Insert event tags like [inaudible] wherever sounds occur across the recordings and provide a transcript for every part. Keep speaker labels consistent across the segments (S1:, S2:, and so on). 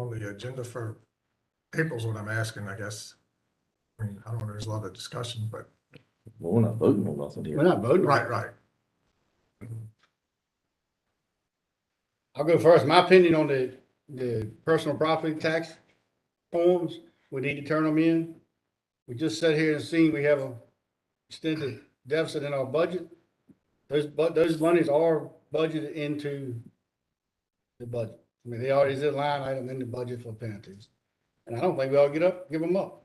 S1: on the agenda for April's what I'm asking, I guess. I mean, I don't know, there's a lot of discussion, but,
S2: Well, we're not voting on nothing
S3: We're
S2: here.
S3: not voting.
S1: right, right.
S3: I'll go first. My opinion on the, the personal property tax forms, we need to turn them in. We just sat here and seen we have a extended deficit in our budget. Those, but those monies are budgeted into the budget. I mean, they already is a line item in the budget for penalties. And I don't think we ought to get up, give them up.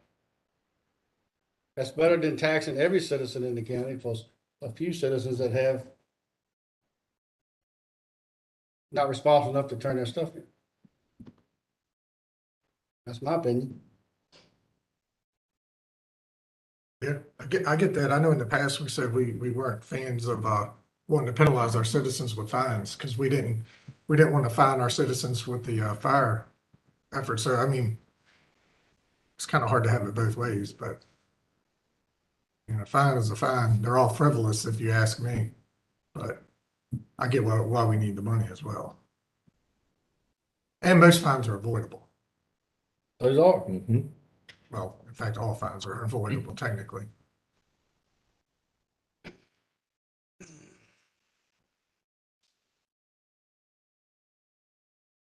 S3: That's better than taxing every citizen in the county plus a few citizens that have not responsible enough to turn their stuff in. That's my opinion.
S1: Yeah, I get, I get that. I know in the past, we said we, we weren't fans of, uh, wanting to penalize our citizens with fines, because we didn't, we didn't want to fine our citizens with the, uh, fire effort, so I mean, it's kind of hard to have it both ways, but you know, fine is a fine. They're all frivolous if you ask me, but I get why, why we need the money as well. And most fines are avoidable.
S3: Those are.
S2: Mhm.
S1: Well, in fact, all fines are avoidable technically.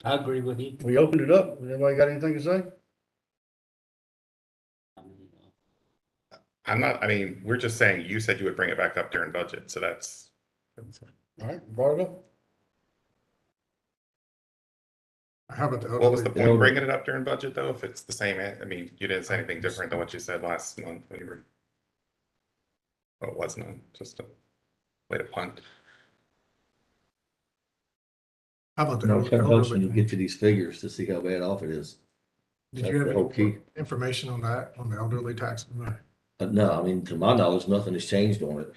S4: I agree with you.
S3: We opened it up. Anybody got anything to say?
S5: I'm not, I mean, we're just saying, you said you would bring it back up during budget, so that's,
S3: All right, brought it up.
S1: How about the elderly?
S5: what was the point
S2: Yeah.
S5: of bringing it up during budget though? If it's the same, an- I mean, you didn't say anything different than what you said last month when you were. Well, it was none, just a way to punt.
S1: How about the
S2: No, it kind of helps when you
S1: elderly?
S2: get to these figures to see how bad off it is.
S1: Did you have
S2: That's the whole
S1: any
S2: key.
S1: information on that, on the elderly tax? No.
S2: But no, I mean, to my knowledge, nothing has changed on it.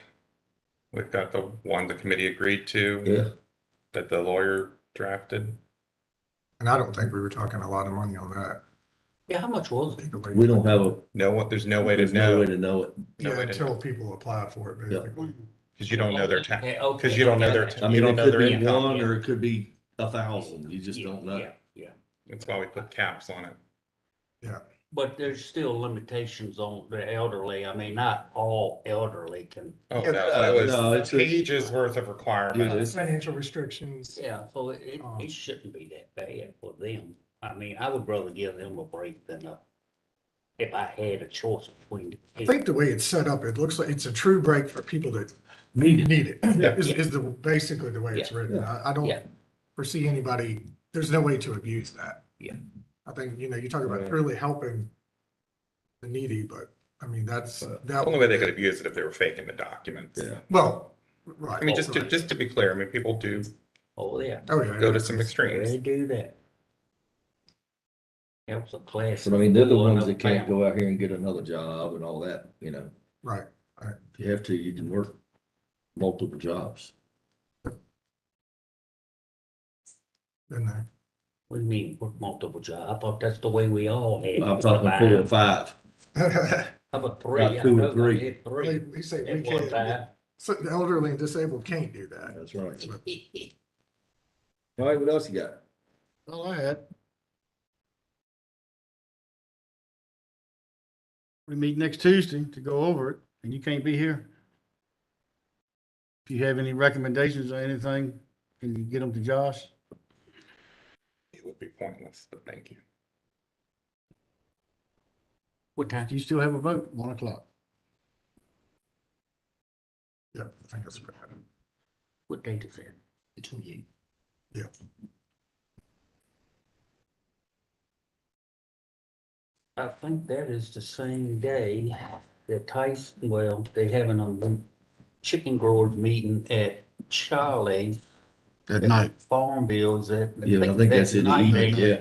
S5: We've got the one the committee agreed to
S2: Yeah,
S5: that the lawyer drafted.
S1: And I don't think we were talking a lot of money on that.
S4: Yeah, how much was it?
S1: legally.
S2: we don't have a,
S5: No one, there's no way to
S2: there's no way
S5: know,
S2: to know it.
S5: no
S1: Yeah,
S5: way to
S1: until
S5: know,
S1: people apply for it,
S2: Yeah.
S1: basically.
S5: because you don't know their tax,
S4: Okay, okay,
S5: because you don't know their,
S4: okay.
S2: I
S5: you
S2: mean,
S5: don't
S2: it
S5: know
S2: could
S5: their
S2: be
S5: income.
S2: one or it could be a thousand. You just
S4: Yeah,
S2: don't know.
S4: yeah, Yeah,
S5: That's why we put caps on it.
S4: but there's still limitations on the elderly. I mean, not all elderly can,
S5: Oh,
S2: Yeah,
S5: no, that
S2: uh, no,
S5: was
S2: it's a-
S5: pages worth of
S2: Yeah,
S5: requirements.
S2: it's-
S1: Financial restrictions.
S4: yeah, so it- it,
S5: Uh-huh.
S1: Um.
S4: it shouldn't be that bad for them. I mean, I would rather give them a break than a, if I had a choice between.
S1: I think the way it's set up, it looks like it's a true break for people that
S2: Need
S1: need it,
S2: Yeah.
S1: [laughs] is, is the, basically the way it's written. I, I don't
S4: Yeah.
S1: foresee anybody, there's no way to abuse that.
S4: Yeah.
S1: I think, you know, you talk about
S5: Yeah.
S1: really helping the needy, but I mean, that's,
S5: The
S1: that.
S5: Only way they could abuse it if they were faking the documents.
S2: Yeah.
S1: Well, right.
S5: I mean, just to, just to be clear, I mean, people do
S4: Oh, yeah,
S1: Oh, yeah.
S5: go to some
S4: they
S5: extremes.
S4: do that. Helps a class.
S2: But I mean, they're the
S4: of
S2: ones that
S4: people in a
S2: can't go out here and get another job and all that, you know.
S1: Right.
S2: If you have to, you can work multiple jobs.
S1: Been there.
S4: What do you mean, work multiple jobs? I thought that's the way we all had.
S2: I'm talking four or
S4: How
S2: five.
S1: [laughs] Like
S4: about three? I
S2: About two or
S4: know I
S2: three.
S4: had Three
S1: We say we
S4: at one
S1: can't,
S4: time.
S1: so the elderly and disabled can't do that.
S2: That's right. [laughs] All right, what else you got?
S3: All I had. We meet next Tuesday to go over it, and you can't be here. If you have any recommendations or anything, can you get them to Josh?
S5: It would be pointless, but thank you.
S4: What time?
S3: Do you still have a vote? One o'clock.
S1: Yeah, I think that's bad.
S4: What date is it? The twenty-eighth.
S1: Yeah.
S4: I think that is the same day that Tyson, well, they having a chicken growers meeting at Charlie
S3: At night.
S4: Farm Bills at.
S2: Yeah, I think that's in the
S4: night
S2: evening,
S4: there.
S2: yeah.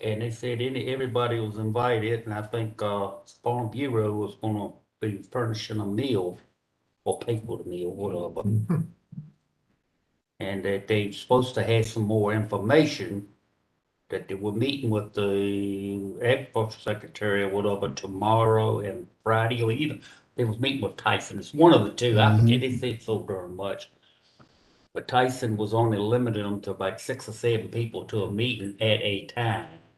S4: And they said any, everybody was invited, and I think, uh, Farm Bureau was gonna be furnishing a meal or pay for the meal, whatever. And that they supposed to have some more information, that they were meeting with the agriculture secretary or whatever tomorrow and Friday, or either, they was meeting with Tyson, it's one of the two, I forget, they said so darn much. But Tyson was only limiting them to about six or seven people to a meeting at a time.